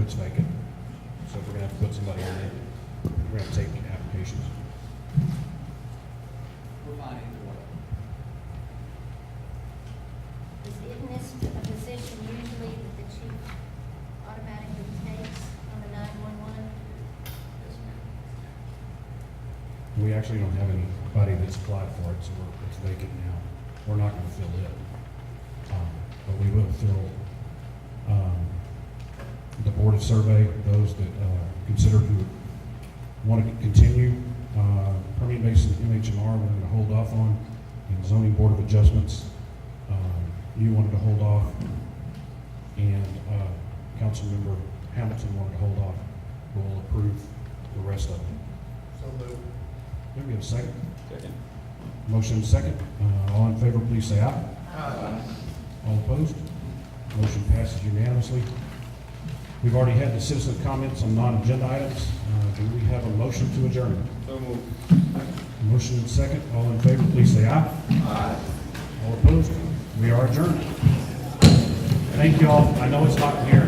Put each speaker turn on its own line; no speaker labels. it's vacant. So we're gonna have to put somebody in there. We're gonna have to take applications.
We're fine either way.
Is Isn't this a position usually that the chief automatically takes on the nine-one-one?
Yes, ma'am.
We actually don't have anybody that's applied for it, so we're, it's vacant now. We're not gonna fill it. Um, But we will fill, um, the Board of Survey, those that, uh, consider who want to continue. Uh, Permian Basin MHMR, we're gonna hold off on, and Zoning Board of Adjustments, um, you wanted to hold off. And, uh, Councilmember Hamilton wanted to hold off. We'll approve the rest of it. There we have a second.
Second.
Motion second. Uh, All in favor, please say aye. All opposed? Motion passes unanimously. We've already had the citizen comments on non-agenda items. Uh, Do we have a motion to adjourn?
So moved.
Motion and second. All in favor, please say aye. Aye. All opposed? We are adjourned. Thank you all. I know it's hot in here.